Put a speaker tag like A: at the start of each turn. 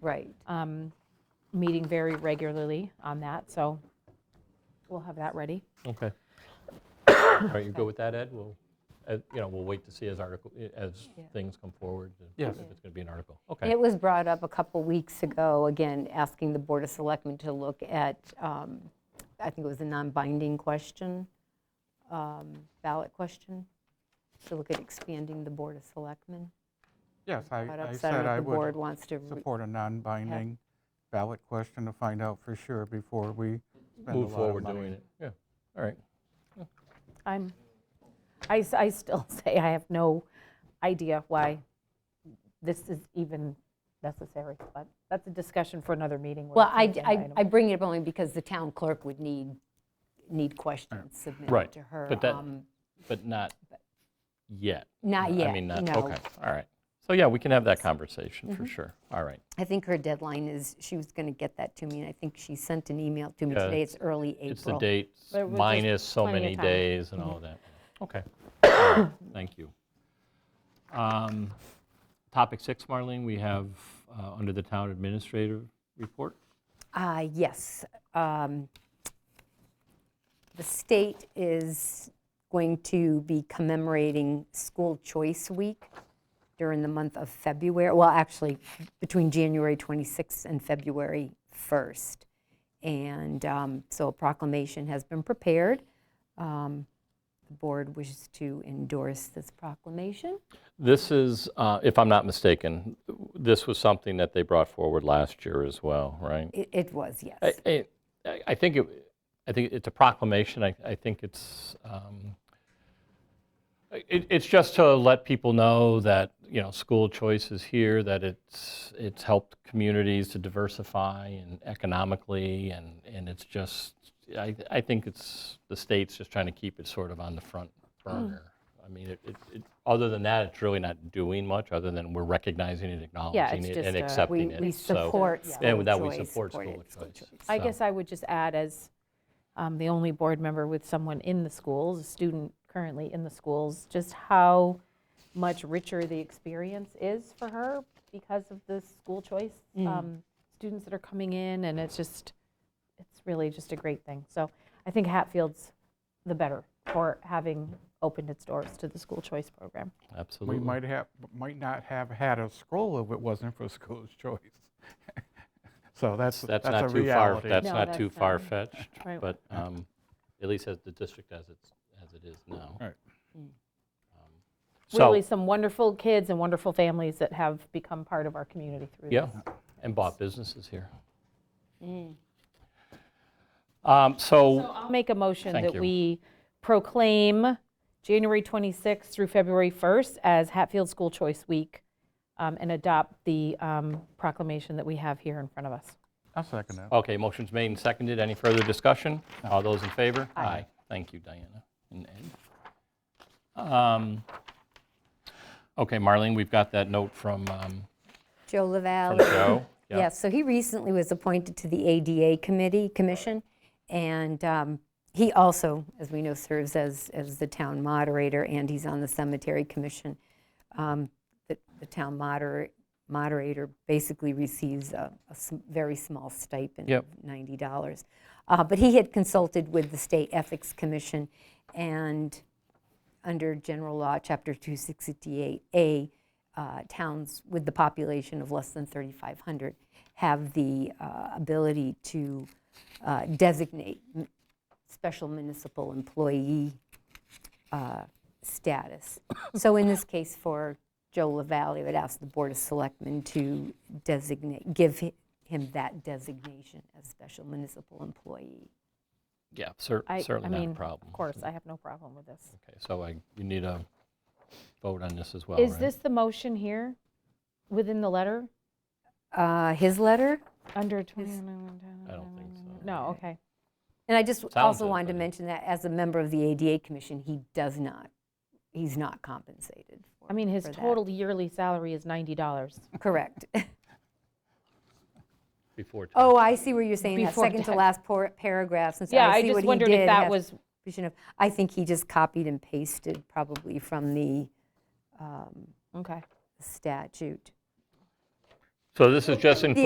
A: Right.
B: um, meeting very regularly on that, so we'll have that ready.
C: Okay.
D: All right, you go with that, Ed? We'll, uh, you know, we'll wait to see as article, as
B: Yeah.
D: things come forward. uh,
C: Yes.
D: If it's going to be an article.
A: And
D: Okay.
A: it was brought up a couple weeks ago, again, asking the Board of Selectmen to look at, um, I think it was a non-binding question, um, ballot question, to look at expanding the Board of Selectmen.
C: Yes, I
A: Brought
C: I
A: up,
C: said
A: Senator,
C: I
A: if the board
C: would
A: wants to, re-
C: support a non-binding ballot question to find out for sure before we spend a
D: Move
C: lot of
D: forward
C: money.
D: doing it. Yeah, all right.
B: I'm, I, s- I still say I have no idea why this is even necessary, but that's a discussion for another meeting. when
A: well,
B: it's an agenda
A: I- I,
B: item.
A: I bring it up only because the town clerk would need, need questions submitted
D: Right,
A: to her.
D: but that-
A: um,
D: But not yet. I
A: Not yet,
D: mean, not,
A: no.
D: okay, all right. So, yeah, we can have that conversation for sure. All right.
A: I think her deadline is, she was going to get that to me, and I think she sent an email to me
D: Yeah,
A: today. It's early April.
D: It's the date
B: There was just
D: minus so
B: plenty of
D: many
B: time.
D: days and all that. Okay. All right, Thank you. Um, Topic six, Marlene, we have uh, under the town administrator report.
A: Uh, Yes. um, The state is going to be commemorating School Choice Week during the month of February, well, actually, between January 26th and February 1st. And um, so a proclamation has been prepared. Um, The board wishes to endorse this proclamation.
D: This is, uh, if I'm not mistaken, this was something that they brought forward last year as well, right?
A: It- It was, yes.
D: I- I, I I think it, I think it's a proclamation. I, I think it's, um, it, it's just to let people know that, you know, school choice is here, that it's, it's helped communities to diversify and economically, and, and it's just, I, I think it's, the state's just trying to keep it sort of on the front burner.
A: Hmm.
D: I mean, it, it, it- other than that, it's really not doing much, other than we're recognizing it, acknowledging
B: it's
D: it,
B: just a-
D: and
B: we-
A: We
D: accepting it.
A: uh, we
D: So-
A: support school choice.
D: and that we support
A: supported
D: school choice.
B: I
D: So-
B: guess I would just add, as um, the only board member with someone in the schools, a student currently in the schools, just how much richer the experience is for her because of the school choice um, students that are coming in, and it's just, it's really just a great thing. So I think Hatfield's the better for having opened its doors to the school choice program.
D: Absolutely.
C: We might have, might not have had a scroll if it wasn't for school's choice. So that's,
D: That's
C: that's a
D: not too far,
C: reality.
D: that's
B: No,
D: not too
B: that's not-
D: far-fetched,
B: Right.
D: but um, at least as the district as it's, as it is now.
C: Right.
D: Um,
B: Really,
D: So,
B: some wonderful kids and wonderful families that have become part of our community through
D: yeah,
B: this.
D: and bought businesses here.
B: Mm.
D: Um, So,
B: I'll make a motion
D: Thank
B: that
D: you.
B: we proclaim January 26th through February 1st as Hatfield School Choice Week um, and adopt the um, proclamation that we have here in front of us.
C: I'll second that.
D: okay, motion's made and seconded. Any further discussion? All those in favor? Aye. Thank you, Diana and Ed. Um, Okay, Marlene, we've got that note from um,
A: Joe
D: from
A: Lavalley.
D: Joe. Yeah.
A: Yes, so he recently was appointed to the ADA Committee, Commission, and um, he also, as we know, serves as, as the town moderator, and he's on the Cemetery Commission. Um, The the town moder- moderator basically receives a a sm- very small stipend of
D: Yep.
A: $90. Uh, But he had consulted with the State Ethics Commission, and under general law, Chapter 268A, uh, towns with the population of less than 3,500 have the uh, ability to uh, designate m- special municipal employee uh, status. So in this case, for Joe LaValle, I would ask the Board of Selectmen to designate, give hi- him that designation as special municipal employee.
D: Yeah, cer-
B: I-
D: certainly
B: I
D: not a
B: mean,
D: problem.
B: Of course, I have no problem with this.
D: Okay, so I, you need a vote on this as well,
B: Is
D: right?
B: this the motion here within the letter
A: Uh, His letter?
B: under 20?
D: I don't think so.
B: No, okay.
A: And I just
D: Sounds
A: also
D: it,
A: wanted to
D: but-
A: mention that as a member of the ADA Commission, he does not, he's not compensated. for-
B: I mean, his
A: for that.
B: total yearly salary is $90.
A: Correct.
D: Before tax.
A: Oh, I see where you're saying that,
B: Before
A: second to
B: tax.
A: last por- paragraph, since
B: Yeah,
A: I
B: I
A: see what
B: just
A: he
B: wondered if
A: did.
B: that
A: have-
B: was,
A: we shouldn't have- I think he just copied and pasted probably from the um,
B: okay.
A: statute.
D: So this is just in
A: The